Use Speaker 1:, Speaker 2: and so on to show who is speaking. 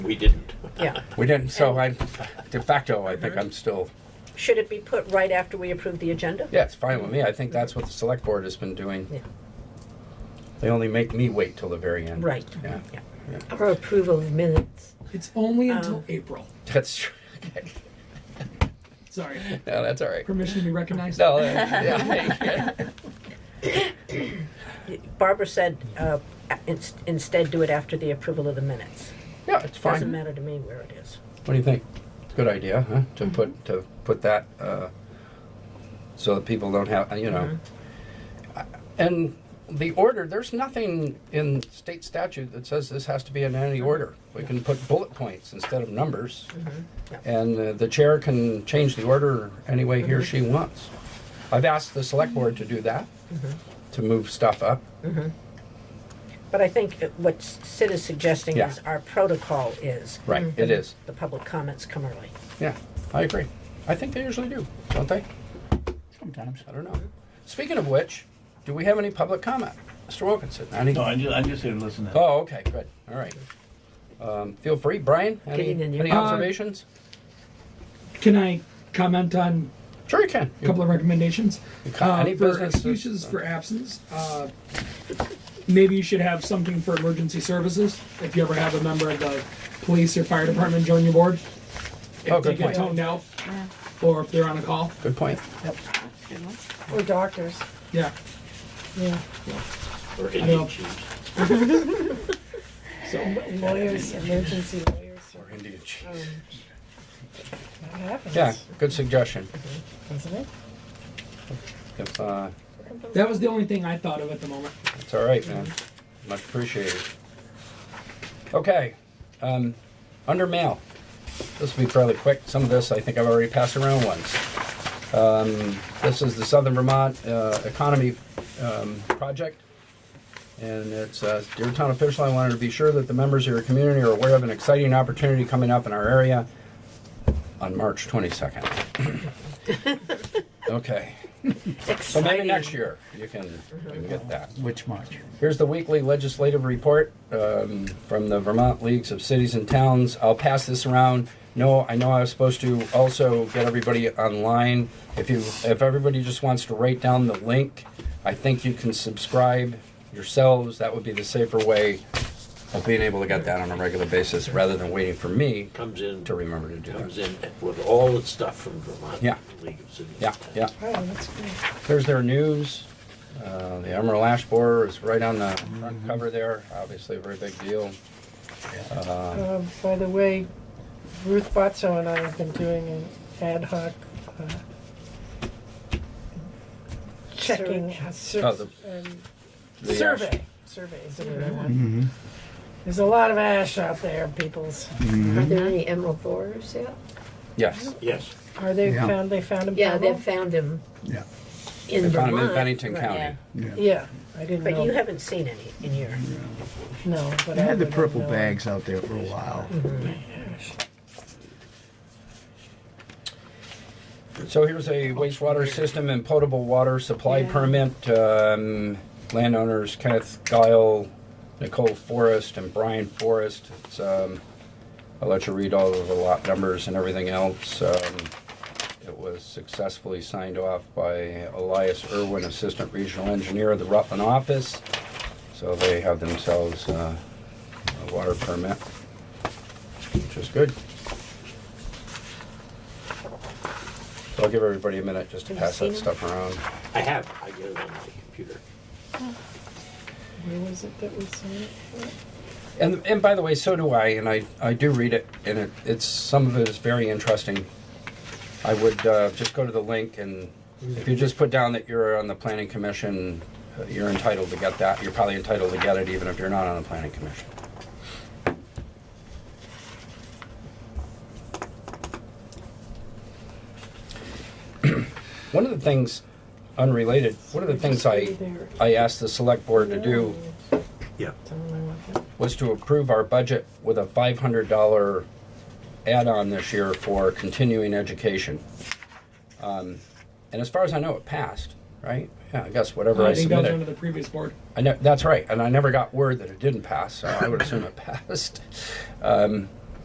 Speaker 1: We didn't.
Speaker 2: Yeah.
Speaker 3: We didn't, so I, de facto, I think I'm still,
Speaker 2: Should it be put right after we approve the agenda?
Speaker 3: yeah, it's fine with me. I think that's what the select board has been doing.
Speaker 2: Yeah.
Speaker 3: They only make me wait till the very end.
Speaker 2: Right.
Speaker 3: Yeah,
Speaker 2: Yeah.
Speaker 4: Or approval of minutes.
Speaker 5: It's only until
Speaker 2: Um,
Speaker 5: April.
Speaker 3: that's true. Okay.
Speaker 5: Sorry.
Speaker 3: No, that's all right.
Speaker 5: Permission to be recognized?
Speaker 3: No, that- yeah, hey,
Speaker 2: Barbara said, uh, ins- instead do it after the approval of the minutes.
Speaker 3: yeah, it's
Speaker 2: Doesn't
Speaker 3: fine.
Speaker 2: matter to me where it is.
Speaker 3: What do you think? Good idea, huh? To put, to put that, uh, so that people don't have, you know. And the order, there's nothing in state statute that says this has to be in any order. We can put bullet points instead of numbers. And uh, the chair can change the order any way he or she wants. I've asked the select board to do that, to move stuff up.
Speaker 2: But I think that what Sid is suggesting
Speaker 3: Yeah.
Speaker 2: is our protocol is.
Speaker 3: Right, it is.
Speaker 2: The public comments come early.
Speaker 3: Yeah, I agree. I think they usually do, don't they?
Speaker 6: Sometimes.
Speaker 3: I don't know. Speaking of which, do we have any public comment? Mr. Wilkinson, any?
Speaker 6: No, I just, I just here to listen to
Speaker 3: Oh, okay, good, all right. Um, Feel free, Brian, any,
Speaker 4: Getting in your-
Speaker 3: any
Speaker 5: Uh,
Speaker 3: observations?
Speaker 5: Can I comment on
Speaker 3: Sure you can.
Speaker 5: a couple of recommendations? Uh,
Speaker 3: You can't- any
Speaker 5: for
Speaker 3: business is-
Speaker 5: excuses for absence, uh, maybe you should have something for emergency services. If you ever have a member of the police or fire department join your board, if
Speaker 3: Oh,
Speaker 5: they
Speaker 3: good
Speaker 5: get
Speaker 3: point.
Speaker 5: toned out, or if they're on a call,
Speaker 3: Good point.
Speaker 4: Or doctors.
Speaker 5: yeah.
Speaker 4: Yeah.
Speaker 1: Or
Speaker 5: know.
Speaker 1: Indian chiefs.
Speaker 5: So
Speaker 4: Lawyers, emergency lawyers.
Speaker 3: Or Indian chief.
Speaker 4: um, That happens.
Speaker 3: Yeah, good suggestion.
Speaker 4: Doesn't it?
Speaker 3: If, uh,
Speaker 5: that was the only thing I thought of at the moment.
Speaker 3: It's all right, man. Much appreciated. Okay, um, under mail. This will be fairly quick. Some of this I think I've already passed around once. Um, this is the Southern Vermont uh, Economy um, Project. And it's, uh, dear town official, I wanted to be sure that the members of your community are aware of an exciting opportunity coming up in our area on March 22nd. okay, so maybe next year you can, you can get that.
Speaker 6: Which March?
Speaker 3: Here's the weekly legislative report um, from the Vermont Leagues of Cities and Towns. I'll pass this around. No, I know I was supposed to also get everybody online. If you, if everybody just wants to write down the link, I think you can subscribe yourselves. That would be the safer way of being able to get that on a regular basis rather than waiting for me
Speaker 1: Comes in,
Speaker 3: to remember to do
Speaker 1: comes
Speaker 3: that.
Speaker 1: in with all the stuff from Vermont.
Speaker 3: Yeah.
Speaker 1: League of Cities.
Speaker 3: Yeah, yeah.
Speaker 4: Oh, that's good.
Speaker 3: There's their news. Uh, the Emerald Ash Borer is right on the front cover there. Obviously, a very big deal.
Speaker 4: Um, by the way, Ruth Botso and I have been doing an ad hoc, uh, checking, uh, sur-
Speaker 3: Oh, the-
Speaker 4: um,
Speaker 3: The ash.
Speaker 4: survey, survey is the word I want. There's a lot of ash out there, peoples.
Speaker 7: Are
Speaker 3: Mm-hmm.
Speaker 7: there any emerald borers yet?
Speaker 3: Yes.
Speaker 1: Yes.
Speaker 4: Are they
Speaker 6: Yeah.
Speaker 4: found, they found them?
Speaker 7: Yeah, they've found them
Speaker 6: Yeah.
Speaker 7: in
Speaker 3: They
Speaker 7: Vermont.
Speaker 3: found them in Bennington
Speaker 7: Right,
Speaker 3: County.
Speaker 7: yeah.
Speaker 6: Yeah.
Speaker 4: Yeah, I didn't know.
Speaker 2: But you haven't seen any in your,
Speaker 4: No, but
Speaker 6: They
Speaker 4: I
Speaker 6: had the
Speaker 4: would have
Speaker 6: purple
Speaker 4: known.
Speaker 6: bags out there for a while.
Speaker 3: So here's a wastewater system and potable water supply permit. Um, landowners Kenneth Guile, Nicole Forrest, and Brian Forrest. It's, um, I'll let you read all of the lot numbers and everything else. Um, it was successfully signed off by Elias Irwin, Assistant Regional Engineer of the Rutland Office. So they have themselves uh, a water permit, which is good. So I'll give everybody a minute just to
Speaker 2: Have you
Speaker 3: pass
Speaker 2: seen
Speaker 3: that
Speaker 2: it?
Speaker 3: stuff around.
Speaker 1: I have, I get it on my computer.
Speaker 4: Where was it that we saw it?
Speaker 3: And, and by the way, so do I, and I, I do read it, and it, it's some of it is very interesting. I would uh, just go to the link, and if you just put down that you're on the planning commission, uh, you're entitled to get that. You're probably entitled to get it, even if you're not on the planning commission. one of the things, unrelated, one of the things I, I asked the select board to do
Speaker 1: Yeah.
Speaker 3: was to approve our budget with a five hundred dollar add-on this year for continuing education. Um, And as far as I know, it passed, right? Yeah, I guess whatever I
Speaker 5: I think that was under
Speaker 3: submitted.
Speaker 5: the previous board.
Speaker 3: I know, that's right, and I never got word that it didn't pass, so I would assume it passed. Um,